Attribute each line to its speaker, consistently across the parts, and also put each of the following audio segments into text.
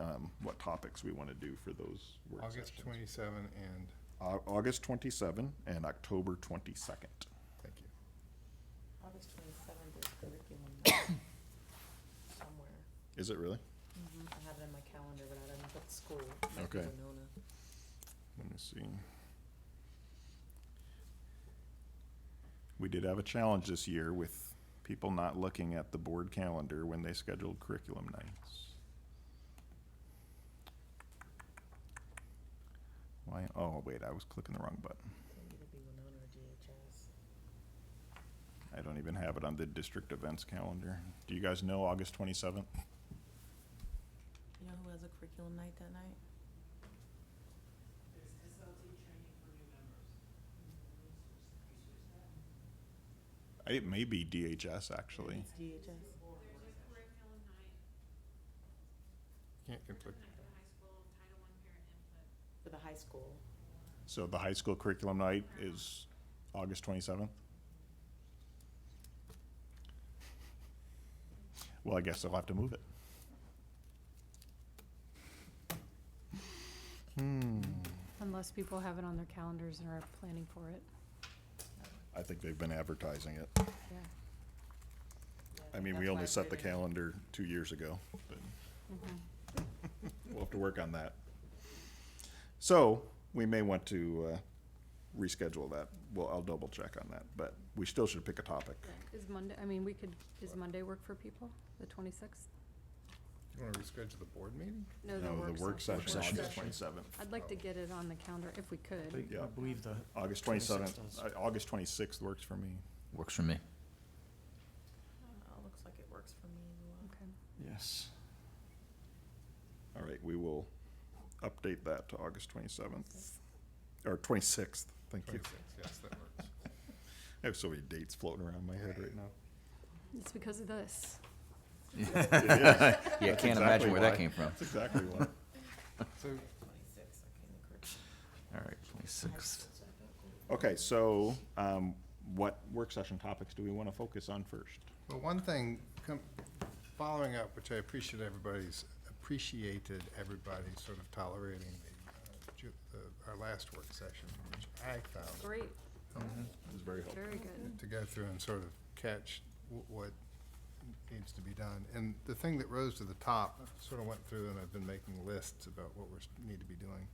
Speaker 1: um, topics we want to do for those work
Speaker 2: August
Speaker 1: sessions.
Speaker 2: twenty-seven and,
Speaker 1: Au- August 27 and October 22nd.
Speaker 2: thank you.
Speaker 3: August twenty-seventh is curriculum night somewhere.
Speaker 1: Is it really?
Speaker 3: I have it in my calendar, but I didn't put the school. It might be
Speaker 1: Okay.
Speaker 3: Winona.
Speaker 1: Let me see. We did have a challenge this year with people not looking at the board calendar when they scheduled curriculum nights. Why, oh, wait, I was clicking the wrong button.
Speaker 3: It'll either be Winona or DHS.
Speaker 1: I don't even have it on the district events calendar. Do you guys know August twenty-seventh?
Speaker 3: You know who has a curriculum night that night?
Speaker 4: There's SLT training for new members.
Speaker 1: It may be DHS, actually.
Speaker 3: It's DHS.
Speaker 4: There's a curriculum night
Speaker 2: Can't conflict.
Speaker 4: at the high school, Title I parent input.
Speaker 3: For the high school.
Speaker 1: So the high school curriculum night is August twenty-seventh? Well, I guess they'll have to move it. Hmm,
Speaker 5: Unless people have it on their calendars and are planning for it,
Speaker 1: I think they've been advertising it.
Speaker 5: yeah.
Speaker 3: Yeah,
Speaker 1: I
Speaker 3: think
Speaker 1: mean, we
Speaker 3: that's why
Speaker 1: only
Speaker 3: I
Speaker 1: set
Speaker 3: put
Speaker 1: the
Speaker 3: it in.
Speaker 1: calendar two years ago, but
Speaker 5: Mhm.
Speaker 1: we'll have to work on that. So, we may want to, uh, reschedule that. Well, I'll double check on that, but we still should pick a topic.
Speaker 5: Is Monday, I mean, we could, does Monday work for people, the twenty-sixth?
Speaker 2: You wanna reschedule the board meeting?
Speaker 5: No,
Speaker 1: the work session, August twenty-seventh.
Speaker 5: I'd like to get it on the calendar if we could.
Speaker 1: Yeah.
Speaker 6: I believe the 26th
Speaker 1: August twenty-seventh, Uh,
Speaker 6: does.
Speaker 1: August twenty-sixth works for me.
Speaker 7: Works for me.
Speaker 3: Oh, looks like it works for me as well.
Speaker 5: Okay.
Speaker 6: Yes.
Speaker 1: All right, we will update that to August twenty-seventh, or twenty-sixth, thank you.
Speaker 2: Twenty-six, yes, that works.
Speaker 1: I have so many dates floating around my head right now.
Speaker 5: It's because of this.
Speaker 7: Yeah, I
Speaker 1: That's
Speaker 7: can't
Speaker 1: exactly
Speaker 7: imagine where that
Speaker 1: why.
Speaker 7: came from.
Speaker 1: That's exactly why.
Speaker 2: So,
Speaker 3: Twenty-six, okay, the curriculum.
Speaker 7: All right, twenty-sixth.
Speaker 1: Okay, so, um, what work session topics do we want to focus on first?
Speaker 2: well, one thing, com- following up, which I appreciate everybody's, appreciated everybody sort of tolerating the, uh, ju- the, our last work session, which I found
Speaker 5: Great,
Speaker 1: It's very helpful.
Speaker 5: very good.
Speaker 2: to go through and sort of catch wh- what needs to be done. And the thing that rose to the top, I sort of went through and I've been making lists about what we are need to be doing.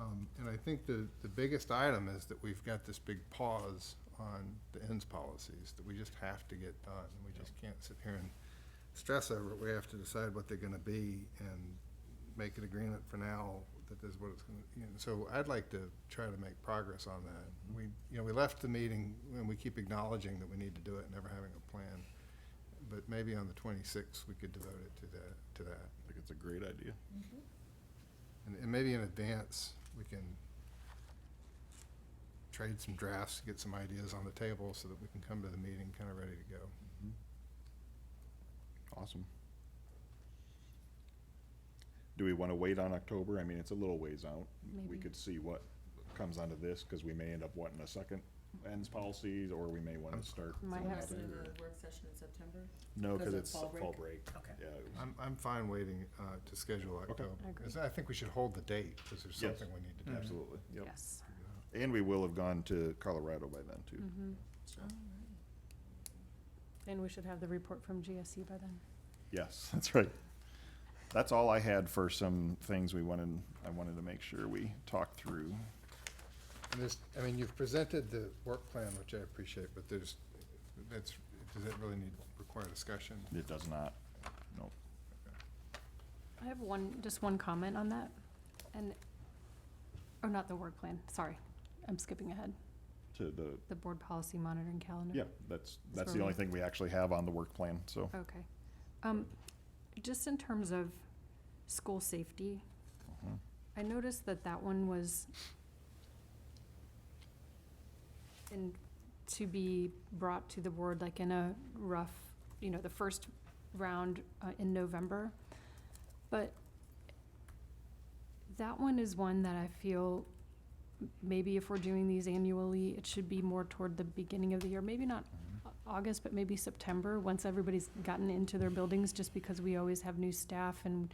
Speaker 2: Um, And I think the, the biggest item is that we've got this big pause on the ends policies that we just have to get done. We just can't sit here and stress over it. We have to decide what they're gonna be and make an agreement for now that this is what it's gonna, you know, so I'd like to try to make progress on that. We, you know, we left the meeting and we keep acknowledging that we need to do it, never having a plan. But maybe on the twenty-sixth, we could devote it to that, to that.
Speaker 1: I think it's a great idea.
Speaker 2: And, and maybe in advance, we can trade some drafts, get some ideas on the table so that we can come to the meeting kind of ready to go.
Speaker 1: Awesome. Do we want to wait on October? I mean, it's a little ways out. We
Speaker 5: Maybe.
Speaker 1: could see what comes onto this, because we may end up wanting a second ends policies, or we may want
Speaker 2: I'm-
Speaker 1: to start.
Speaker 5: Might
Speaker 1: something
Speaker 5: have
Speaker 1: else.
Speaker 5: to-
Speaker 3: Isn't it a work session in September?
Speaker 1: No,
Speaker 3: because
Speaker 1: because
Speaker 3: of
Speaker 1: it's
Speaker 3: fall break?
Speaker 1: fall break.
Speaker 3: Okay.
Speaker 1: Yeah, it was-
Speaker 2: I'm, I'm fine waiting, uh, to schedule October.
Speaker 5: Agree.
Speaker 2: 'cause I think we should hold the date, because there's
Speaker 1: Yes. Mm-hmm.
Speaker 2: something we need to do.
Speaker 1: absolutely, yep.
Speaker 5: Yes.
Speaker 1: And we will have gone to Colorado by then,
Speaker 3: Hmm.
Speaker 1: too.
Speaker 5: Mhm.
Speaker 1: So,
Speaker 5: And we should have the report from GSE by then.
Speaker 1: Yes, that's right. That's all I had for some things we wanted, I wanted to make sure we talked through.
Speaker 2: And This, I mean, you've presented the work plan, which I appreciate, but there's, that's, does that really need, require discussion?
Speaker 1: It does not, no.
Speaker 5: I have one, just one comment on that, and, oh, not the work plan, sorry, I'm skipping ahead,
Speaker 1: to the,
Speaker 5: the board policy monitoring calendar.
Speaker 1: yeah, that's, that's
Speaker 5: where
Speaker 1: the
Speaker 5: we-
Speaker 1: only thing we actually have on the work plan, so.
Speaker 5: Okay. Um, just in terms of school safety,
Speaker 1: Mhm.
Speaker 5: I noticed that that one was in, to be brought to the board like in a rough, you know, the first round uh, in November. But that one is one that I feel m- maybe if we're doing these annually, it should be more toward the beginning of the year, maybe not Au- August, but maybe September, once everybody's gotten into their buildings, just because we always have new staff and